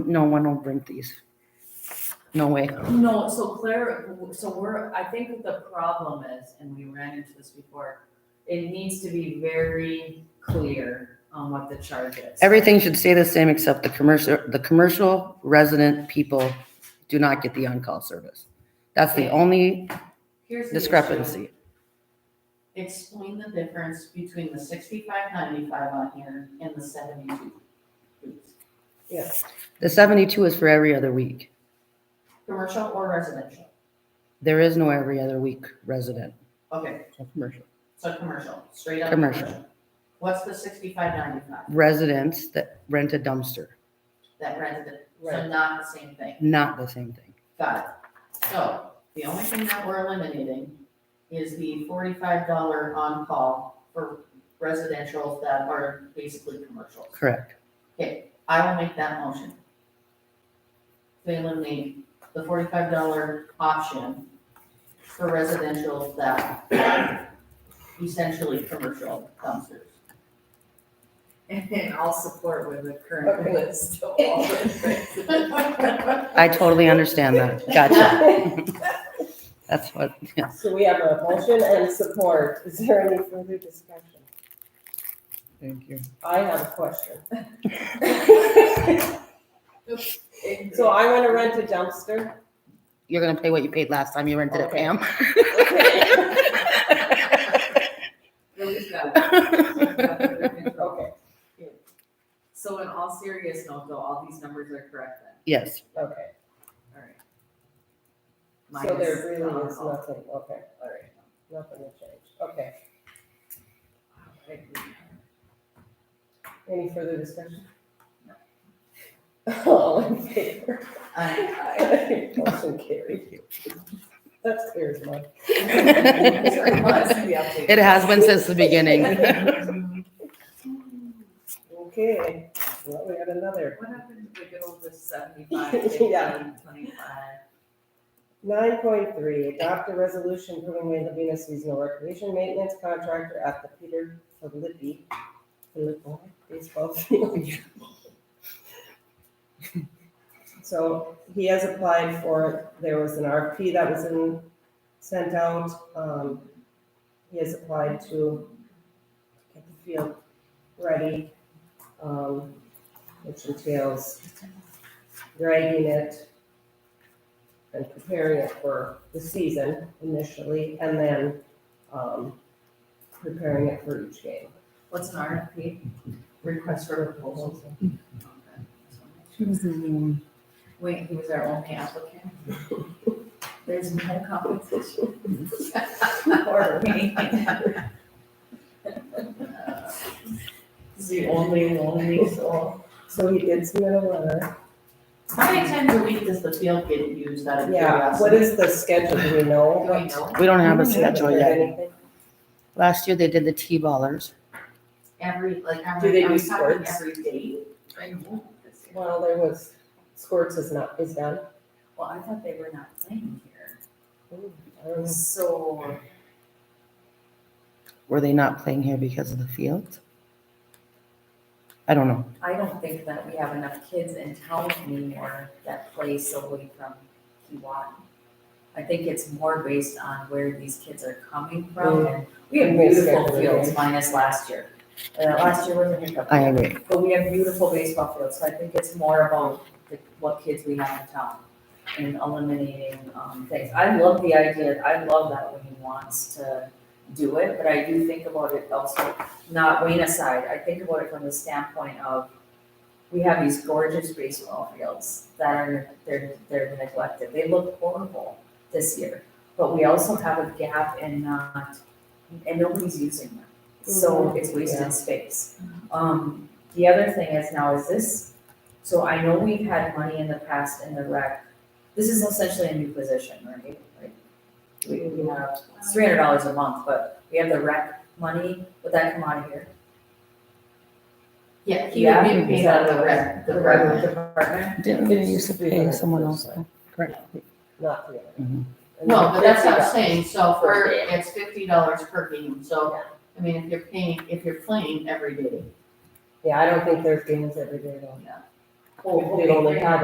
No one will drink these. No way. No, so Claire, so we're, I think what the problem is, and we ran into this before, it needs to be very clear on what the charge is. Everything should stay the same except the commercial, the commercial resident people do not get the on-call service. That's the only Here's the issue. discrepancy. Explain the difference between the sixty-five ninety-five on here and the seventy-two. please. Yes. The seventy-two is for every other week. Commercial or residential? There is no every other week resident Okay, or commercial. so commercial, straight up. Commercial. What's the sixty-five ninety-five Residents that rent a dumpster, that rented, so Right. not the same thing? not the same thing. Got it. So the only thing that we're eliminating is the forty-five dollar on-call for residential that are basically commercial. Correct. I will make that motion. To eliminate the forty-five dollar option for residential that essentially commercial dumpsters. And then I'll support with the current list of all the. I totally understand that. Gotcha. That's what, yeah. So we have a motion and support. Is there any further discussion? Thank you. I have a question. things. So I want to rent a dumpster. you're gonna pay what you paid last time you rented it, Okay. Pam. Okay. Release that. Okay, So in all serious note, though, all these numbers are correct then, Yes, okay. all right. So Minus there the really is alcohol. nothing, okay, all right, nothing to change, okay. Any further discussion? All in favor? I- Motion carried. That's clear as mud. it has been since the beginning. Okay, well, we had another. What happened to the good old seventy-five, fifteen, Yeah. twenty-five? Nine point three, adopt a resolution approving Wayne Levina seasonal recreation maintenance contractor at the Peter Filippi, Filippo baseball field. So he has applied for, there was an RFP that was in, sent out, um, he has applied to get the field ready, um, which entails dragging it, and preparing it for the season initially, and then, um, preparing it for each game. What's an RFP? Request for proposals. Wait, he was our only applicant? There's no competition. For me. It's the only, only, so. So he did submit a letter. How many times a week does the field get used out of Yeah, what curiosity? is the schedule, do we know? Do I know? We don't have a We haven't schedule heard yet. anything. Last year they did the T-ballers. Every, like, I'm, Do they I'm do talking sports? every day. Well, there was, Squirts is not, is done. Well, I thought they were not playing here. I don't know. So, Were they not playing here because of the field? I don't know. I don't think that we have enough kids in town anymore that play solely from Kiwanee. I think it's more based on where these kids are coming from, and we have Based beautiful on the fields game. minus last year. Uh, last year was a hiccup. I agree. But we have beautiful baseball fields, so I think it's more about the, what kids we have in town and eliminating, um, things. I love the idea, I love that Wayne wants to do it, but I do think about it also, not Wayne aside, I think about it from the standpoint of we have these gorgeous baseball fields that are, they're, they're neglected, they look horrible this year. But we also have a gap in not, and nobody's using them, so it's Yeah. wasted space. Um, the other thing is now is this, so I know we've had money in the past in the rec, this is essentially a new position, right? Like, We, we have, it's three hundred dollars a month, but we have the rec money, would that come out of here? Yeah, he would Yeah, be is paid that out of the rec, the rec. department? Didn't they used to pay someone else, though? Correct. Not the other. Mhm. No, but that's what I'm Fifty saying, so if we're, Per it's fifty dollars per game, so, I mean, if you're paying, if you're playing every day, Yeah, I don't think there's games every day though. Oh, If they don't okay, have